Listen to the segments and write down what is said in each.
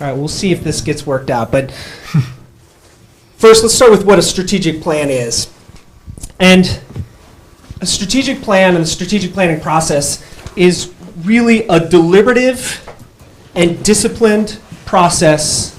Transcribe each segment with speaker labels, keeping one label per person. Speaker 1: All right, we'll see if this gets worked out. But first, let's start with what a strategic plan is. And a strategic plan and the strategic planning process is really a deliberative and disciplined process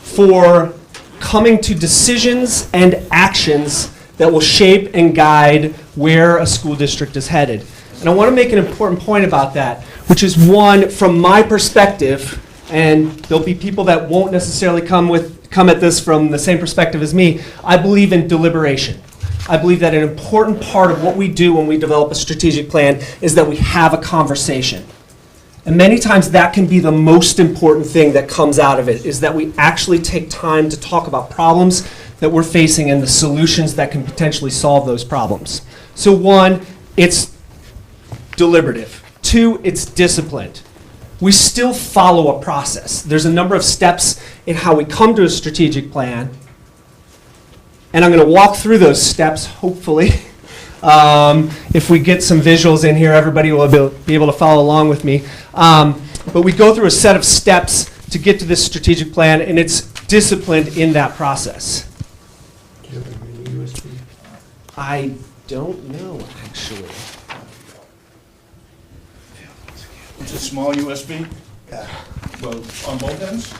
Speaker 1: for coming to decisions and actions that will shape and guide where a school district is headed. And I want to make an important point about that, which is one, from my perspective, and there'll be people that won't necessarily come with, come at this from the same perspective as me, I believe in deliberation. I believe that an important part of what we do when we develop a strategic plan is that we have a conversation. And many times that can be the most important thing that comes out of it is that we actually take time to talk about problems that we're facing and the solutions that can potentially solve those problems. So, one, it's deliberative, two, it's disciplined. We still follow a process. There's a number of steps in how we come to a strategic plan, and I'm going to walk through those steps, hopefully. Um, if we get some visuals in here, everybody will be- be able to follow along with me. Um, but we go through a set of steps to get to this strategic plan, and it's disciplined in that process. I don't know, actually.
Speaker 2: It's a small USB,
Speaker 3: Yeah,
Speaker 2: well, on both ends?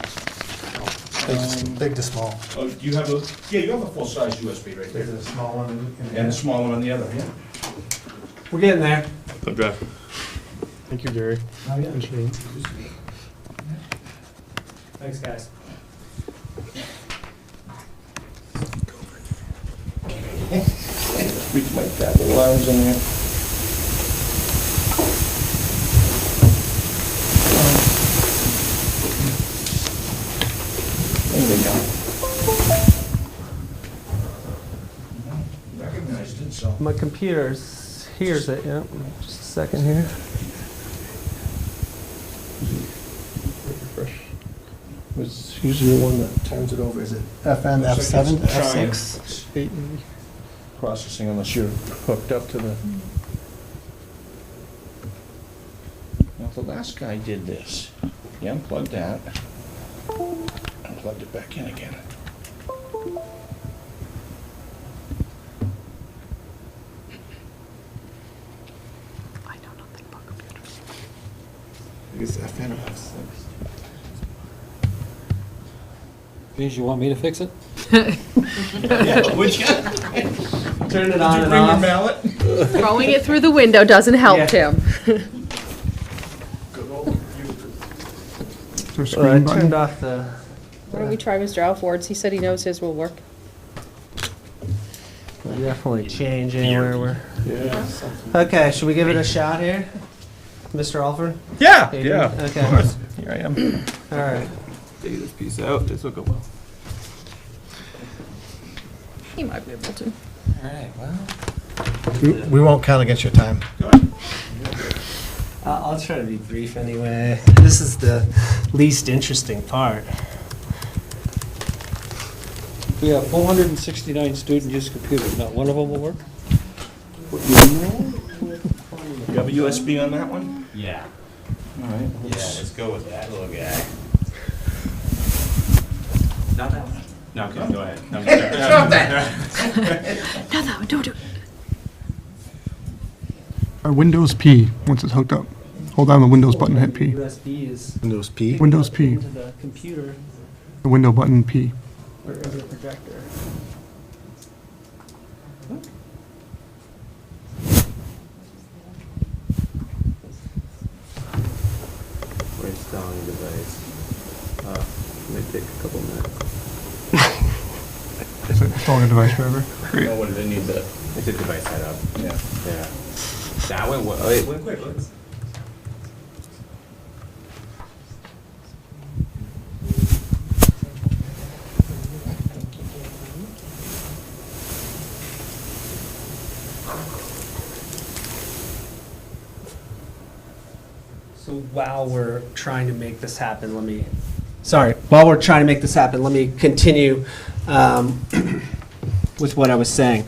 Speaker 3: big to, big to small.
Speaker 2: Oh, you have a, yeah, you have a full-size USB right there,
Speaker 3: There's a small one. in-
Speaker 2: and a small one on the other, yeah.
Speaker 1: We're getting there.
Speaker 4: I'm driving.
Speaker 5: Thank you, Gary.
Speaker 3: Oh, yeah.
Speaker 5: Appreciate it.
Speaker 1: Thanks, guys.
Speaker 2: We might have the lines in there. There we go. Recognized it, so.
Speaker 1: My computer's here's it. Yep. Just a second here.
Speaker 2: Was usually the one that turns it over, is it?
Speaker 3: FM, F7,
Speaker 2: Looks like it's
Speaker 3: F6.
Speaker 2: trying
Speaker 5: Eight and-
Speaker 2: Processing unless you're hooked up to the. Now, the last guy did this. He unplugged that. and Plugged it back in again.
Speaker 6: I know nothing about computers.
Speaker 7: Means you want me to fix it?
Speaker 2: Would you?
Speaker 1: Turn it on and off.
Speaker 2: mallet?
Speaker 6: Throwing it through the window doesn't
Speaker 1: Yeah.
Speaker 6: help, Tim.
Speaker 1: Uh, I turned off the.
Speaker 6: Why don't we try Mr. Alford's? He said he knows his will work.
Speaker 1: We're Definitely changing where we're. Okay, should we give it a shot here? Mr. Alford?
Speaker 4: Yeah,
Speaker 1: Adrian?
Speaker 4: yeah. of
Speaker 1: Okay.
Speaker 4: course. Here I am.
Speaker 1: All right.
Speaker 4: Take this piece out. This will go well.
Speaker 6: He might be able to.
Speaker 4: All right. Well.
Speaker 3: We we won't count against your time.
Speaker 1: Uh, I'll try to be brief anyway. This is the least interesting part.
Speaker 7: We have 469 student use computers, not one of them will work?
Speaker 2: You have a USB on that one?
Speaker 8: Yeah.
Speaker 2: All right.
Speaker 8: Yeah, let's go with that little guy. Not that one. No, okay, go ahead. No, Stop that!
Speaker 6: No, no, don't do it.
Speaker 9: Uh, Windows P, once it's hooked up. Hold down the Windows button, hit P.
Speaker 1: USB is.
Speaker 3: Windows P.
Speaker 9: Windows P.
Speaker 1: Into the computer,
Speaker 9: The window button, P.
Speaker 1: wherever the projector.
Speaker 8: We're installing a device. Uh, it may take a couple minutes.
Speaker 9: Is it installing a device forever?
Speaker 8: Oh, what did it need the? It's a device setup.
Speaker 2: Yeah.
Speaker 8: Yeah. That went well. It went quick. Let's-
Speaker 1: So while we're trying to make this happen, let me, sorry, while we're trying to make this happen, let me continue um, with what I was saying.